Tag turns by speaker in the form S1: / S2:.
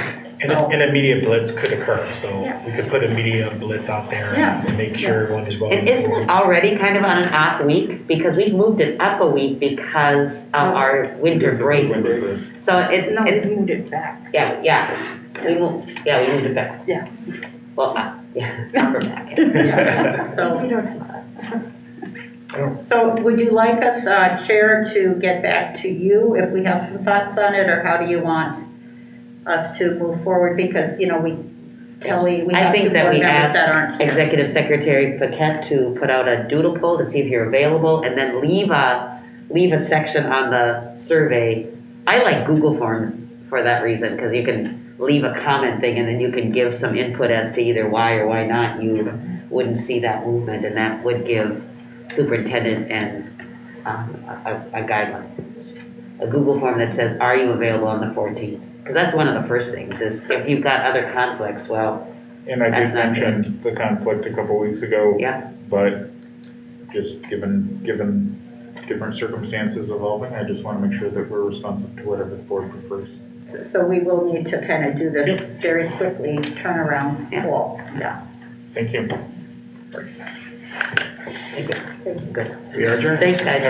S1: An, an immediate blitz could occur, so
S2: Yeah.
S1: we could put a media blitz out there
S2: Yeah.
S1: and make sure everyone is well.
S3: And isn't it already kind of on an off week? Because we've moved it up a week because of our winter break. So it's,
S2: No,
S3: it's,
S2: we moved it back.
S3: yeah, yeah, we moved, yeah, we moved it back.
S2: Yeah.
S3: Well, uh, yeah, upper back.
S4: So,
S1: Oh.
S4: so would you like us, uh, Chair, to get back to you if we have some thoughts on it, or how do you want us to move forward? Because, you know, we, Kelly, we
S3: I
S4: have
S3: think
S4: two
S3: that
S4: board
S3: we
S4: members that aren't here.
S3: Executive Secretary Paquette to put out a doodle poll to see if you're available and then leave a, leave a section on the survey. I like Google Forms for that reason, because you can leave a comment thing and then you can give some input as to either why or why not you wouldn't see that movement and that would give superintendent and, um, a, a a guideline. A Google form that says, are you available on the fourteenth? Because that's one of the first things is if you've got other conflicts, well,
S5: And I
S3: That's
S5: did
S3: not
S5: mention the conflict a couple weeks ago.
S3: Yeah.
S5: But just given, given different circumstances evolving, I just want to make sure that we're responsive to whatever the board prefers.
S4: So we will need to kind of do this very quickly, turnaround
S3: Yeah.
S4: call, yeah.
S5: Thank you.
S1: We are adjourned.
S3: Thanks, guys.